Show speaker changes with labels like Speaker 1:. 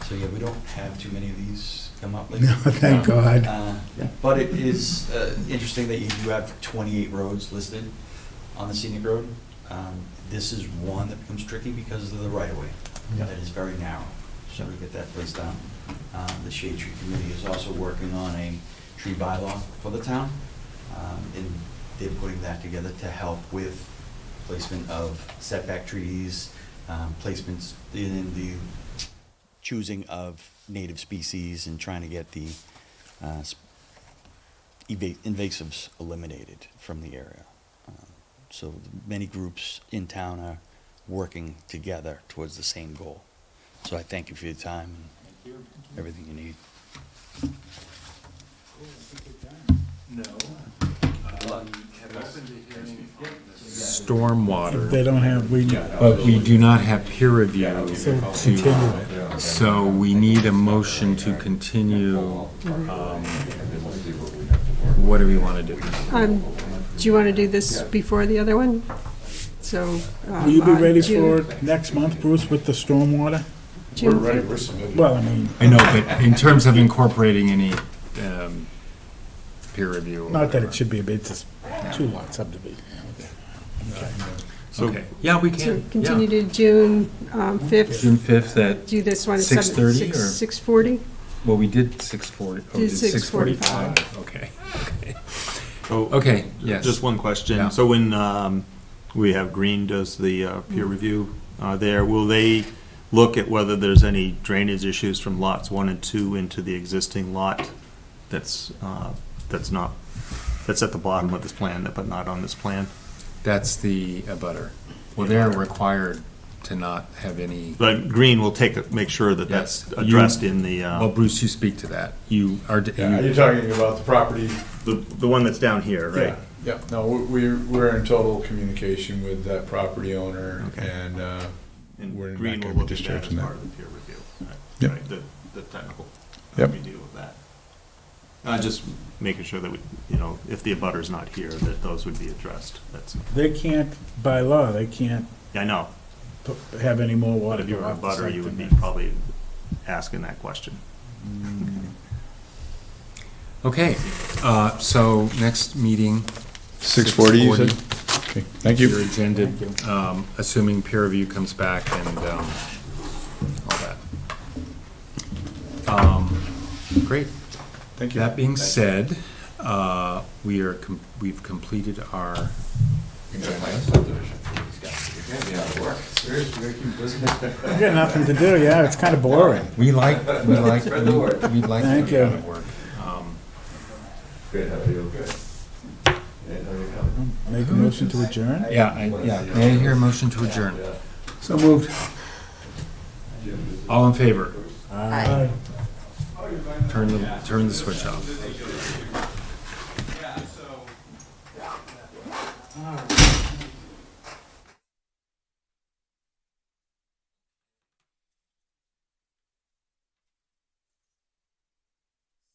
Speaker 1: So, yeah, we don't have too many of these come up lately.
Speaker 2: No, thank God.
Speaker 1: Uh, But it is uh, interesting that you do have 28 roads listed on the scenic road. Um, This is one that becomes tricky because of the right-of-way.
Speaker 2: Yeah.
Speaker 1: That is very narrow, so we get that placed down. Um, The Shade Tree Committee is also working on a tree bylaw for the town, um, and they're putting that together to help with placement of setback trees, um, placements in the choosing of native species and trying to get the uh, s- eva- invasives eliminated from the area. Um, So many groups in town are working together towards the same goal. So I thank you for your time and everything you need.
Speaker 3: No. Um, Have opened a hearing on this.
Speaker 2: If
Speaker 4: stormwater,
Speaker 2: they don't have, we,
Speaker 4: but we do not have peer review
Speaker 2: so
Speaker 4: to,
Speaker 2: continue.
Speaker 4: so we need a motion to continue. um, What do we want to do?
Speaker 5: Um, Do you want to do this before the other one? So. um,
Speaker 2: Will you be
Speaker 5: on
Speaker 2: ready for
Speaker 5: June-
Speaker 2: next month, Bruce, with the stormwater?
Speaker 5: June
Speaker 2: Well, I mean,
Speaker 4: I know, but in terms of incorporating any um, peer review. or
Speaker 2: not that
Speaker 4: whatever.
Speaker 2: it should be a bit, it's two lot subdivision.
Speaker 4: Okay, yeah, we can,
Speaker 5: To continue
Speaker 4: yeah.
Speaker 5: to June um, 5th,
Speaker 4: June 5th at,
Speaker 5: do this one. at
Speaker 4: 6:30
Speaker 5: seven- six-
Speaker 4: or-
Speaker 5: 6:40?
Speaker 4: well, we did 6:40. oh,
Speaker 5: Did
Speaker 4: 6:45. Okay,
Speaker 6: Oh,
Speaker 4: okay, yes.
Speaker 6: just one
Speaker 4: Yeah.
Speaker 6: question. So when um, we have Green does the uh, peer
Speaker 4: Mm.
Speaker 6: review uh, there, will they look at whether there's any drainage issues from lots one and two into the existing lot that's, uh, that's not, that's at the bottom of this plan, but not on this plan?
Speaker 4: That's the abutter. Well, they're required to not have any,
Speaker 6: But Green will take, a- make sure that
Speaker 4: Yes.
Speaker 6: that's addressed in the,
Speaker 4: well,
Speaker 6: uh,
Speaker 4: Bruce, you speak to that. You are,
Speaker 7: Are you
Speaker 4: you-
Speaker 7: talking about the property?
Speaker 6: the the one that's down here, right?
Speaker 7: Yeah, no, we- we're, we're in total communication with that property owner
Speaker 6: Okay.
Speaker 7: and, uh,
Speaker 6: And
Speaker 7: We're not
Speaker 6: Green
Speaker 7: gonna
Speaker 6: will
Speaker 7: be
Speaker 6: look at that
Speaker 7: discharging
Speaker 6: as
Speaker 7: that.
Speaker 6: part of the peer review, right?
Speaker 7: Yep.
Speaker 6: Right, The, the technical, how
Speaker 7: Yep.
Speaker 6: we deal with that. Uh, just making sure that we, you know, if the abutter's not here, that those would be addressed, that's,
Speaker 2: They can't, by law, they can't
Speaker 6: I know,
Speaker 2: p- have any more
Speaker 6: but
Speaker 2: water
Speaker 6: if you
Speaker 2: go
Speaker 6: were a
Speaker 2: off the
Speaker 6: butter,
Speaker 2: site
Speaker 6: you would be
Speaker 2: than that.
Speaker 6: probably asking that question.
Speaker 4: okay, uh, so next meeting.
Speaker 7: 6:40, you said? Okay, Thank you.
Speaker 4: Your agenda, um, assuming peer review comes back and, um, all that. Um, Great.
Speaker 7: Thank
Speaker 4: That being said, uh, we are, com- we've completed our.
Speaker 2: You got nothing to do, yeah, it's kind of boring.
Speaker 4: We like, we like, we like.
Speaker 2: Thank
Speaker 4: the amount
Speaker 2: you.
Speaker 4: of work. Um,
Speaker 8: Good, how are you? Good. And how are you coming?
Speaker 2: Make a motion to adjourn?
Speaker 4: Yeah, I, yeah, may I hear a motion to adjourn?
Speaker 2: So moved.
Speaker 4: All in favor? Turn the, turn the switch off.